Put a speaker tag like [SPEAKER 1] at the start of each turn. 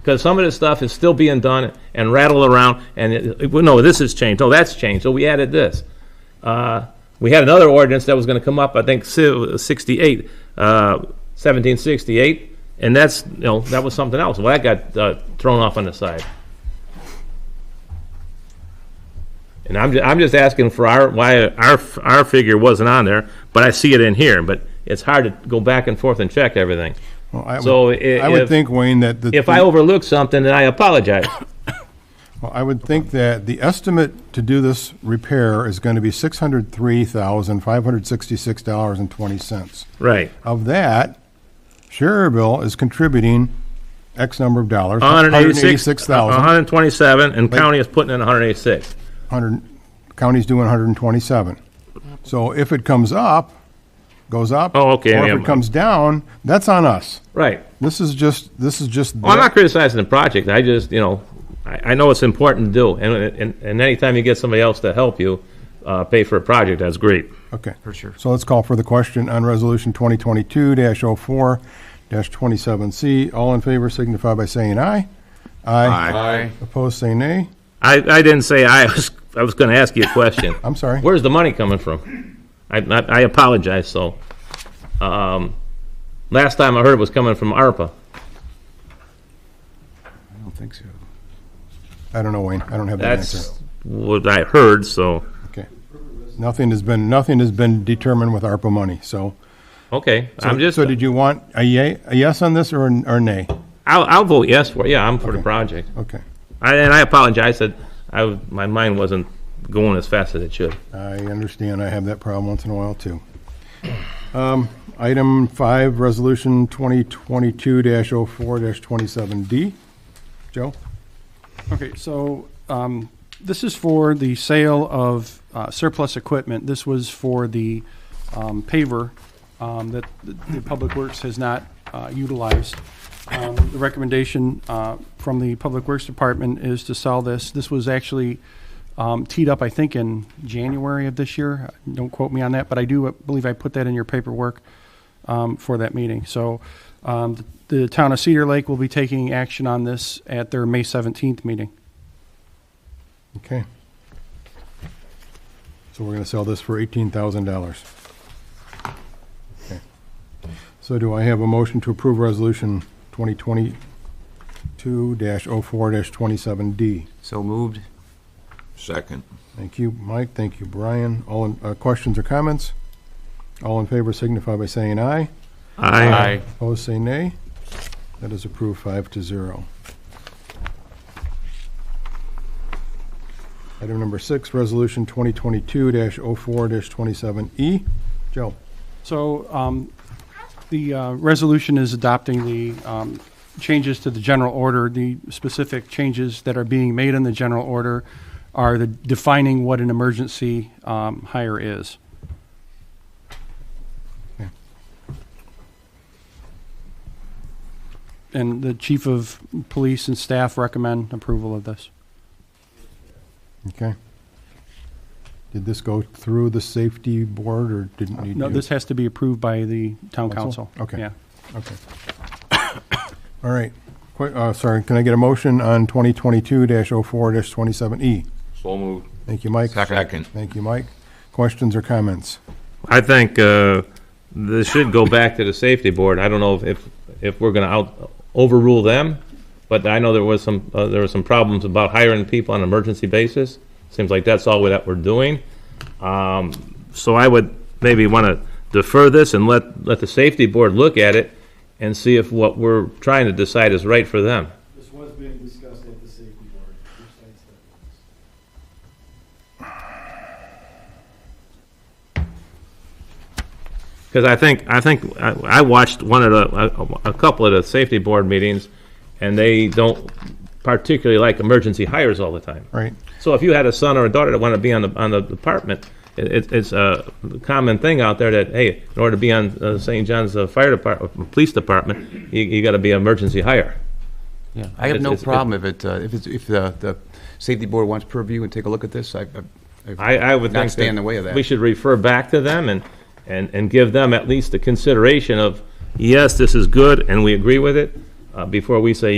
[SPEAKER 1] because some of this stuff is still being done and rattled around, and, it- it- well, no, this has changed, no, that's changed, so we added this. Uh, We had another ordinance that was going to come up, I think si- 68, uh, 1768, and that's, you know, that was something else. Well, that got uh, thrown off on the side. And I'm, ju- I'm just asking for our, why our, f- our figure wasn't on there, but I see it in here, but it's hard to go back and forth and check everything.
[SPEAKER 2] Well, I
[SPEAKER 1] So
[SPEAKER 2] would-
[SPEAKER 1] i-
[SPEAKER 2] I would
[SPEAKER 1] if-
[SPEAKER 2] think, Wayne, that the.
[SPEAKER 1] If I overlook something, then I apologize.
[SPEAKER 2] Well, I would think that the estimate to do this repair is going to be six hundred three thousand, five hundred sixty-six dollars and twenty cents.
[SPEAKER 1] Right.
[SPEAKER 2] Of that, Sherrville is contributing X number of dollars.
[SPEAKER 1] 186,
[SPEAKER 2] $186,000.
[SPEAKER 1] 127, and county is putting in 186.
[SPEAKER 2] 100, county's doing 127. So if it comes up, goes up.
[SPEAKER 1] Oh, okay,
[SPEAKER 2] Or
[SPEAKER 1] yeah.
[SPEAKER 2] if it comes down, that's on us.
[SPEAKER 1] Right.
[SPEAKER 2] This is just, this is just.
[SPEAKER 1] Well, I'm not criticizing the project, I just, you know, I, I know it's important to do, and, and, and anytime you get somebody else to help you, uh, pay for a project, that's great.
[SPEAKER 2] Okay. For sure. So let's call for the question on Resolution 2022-04-27C. All in favor signify by saying aye.
[SPEAKER 3] Aye.
[SPEAKER 2] Opposed, say nay.
[SPEAKER 1] I, I didn't say I was, I was gonna ask you a question.
[SPEAKER 2] I'm sorry.
[SPEAKER 1] Where's the money coming from? I, I I apologize, so, um, last time I heard it was coming from ARPA.
[SPEAKER 3] I don't think so.
[SPEAKER 2] I don't know, Wayne. I don't have that answer.
[SPEAKER 1] That's what I heard, so,
[SPEAKER 2] Okay. Nothing has been, nothing has been determined with ARPA money, so.
[SPEAKER 1] okay, I'm just,
[SPEAKER 2] So did you want a yea, a yes on this or a or nay?
[SPEAKER 1] I'll, I'll vote yes for, it. yeah, I'm for the project.
[SPEAKER 2] Okay.
[SPEAKER 1] I, and I apologize that I, w- my mind wasn't going as fast as it should.
[SPEAKER 2] I understand. I have that problem once in a while, too. Um, Item five, Resolution 2022-04-27D. Joe?
[SPEAKER 4] Okay, so um, this is for the sale of uh, surplus equipment. This was for the um, paver um, that the the Public Works has not uh, utilized. Um, The recommendation uh, from the Public Works Department is to sell this. This was actually um, teed up, I think, in January of this year. Don't quote me on that, but I do believe I put that in your paperwork um, for that meeting. So um, the town of Cedar Lake will be taking action on this at their May 17th meeting.
[SPEAKER 2] Okay. So we're going to sell this for $18,000. Okay. So do I have a motion to approve Resolution 2022-04-27D?
[SPEAKER 3] So moved.
[SPEAKER 5] Second.
[SPEAKER 2] Thank you, Mike. Thank you, Brian. All, in- uh, questions or comments? All in favor signify by saying aye.
[SPEAKER 1] Aye.
[SPEAKER 2] Opposed, say nay. That is approved five to zero. Item number six, Resolution 2022-04-27E. E. Joe?
[SPEAKER 4] So um, the uh, resolution is adopting the um, changes to the general order. The specific changes that are being made in the general order are the defining what an emergency um, hire is. And the chief of police and staff recommend approval of this.
[SPEAKER 2] Okay. Did this go through the safety board or didn't need to?
[SPEAKER 4] No, this has to be approved by the town
[SPEAKER 2] Council?
[SPEAKER 4] council.
[SPEAKER 2] Okay.
[SPEAKER 4] Yeah.
[SPEAKER 2] Okay. All right. Qu- uh, Sorry, can I get a motion on 2022-04-27E?
[SPEAKER 5] So moved.
[SPEAKER 2] E? Thank you, Mike.
[SPEAKER 5] Second.
[SPEAKER 2] Thank you, Mike. Questions or comments?
[SPEAKER 1] I think, uh, this should go back to the safety board. I don't know if- if, if we're gonna out, overrule them, but I know there was some, uh, there were some problems about hiring people on an emergency basis. Seems like that's all that we're doing. Um, so I would maybe wanna defer this and let, let the safety board look at it and see if what we're trying to decide is right for them.
[SPEAKER 6] This was being discussed at the safety board, which sites that was.
[SPEAKER 1] Because I think, I think, I I watched one of the, a- a couple of the safety board meetings, and they don't particularly like emergency hires all the time.
[SPEAKER 2] Right.
[SPEAKER 1] So if you had a son or a daughter that wanted to be on the, on the department, it- it's, it's a common thing out there that, hey, in order to be on uh, St. John's uh, Fire Department, Police Department, you, you gotta be an emergency hire.
[SPEAKER 3] Yeah, I have
[SPEAKER 1] It's-
[SPEAKER 3] no
[SPEAKER 1] it's- it-
[SPEAKER 3] problem if it, uh, if it's, if the, the safety board wants purview and take a look at this, I, I-
[SPEAKER 1] I, I would
[SPEAKER 3] Not
[SPEAKER 1] think
[SPEAKER 3] stay
[SPEAKER 1] that
[SPEAKER 3] in the way of that.
[SPEAKER 1] We should refer back to them and, and, and give them at least the consideration of, yes, this is good, and we agree with it, uh, before we say,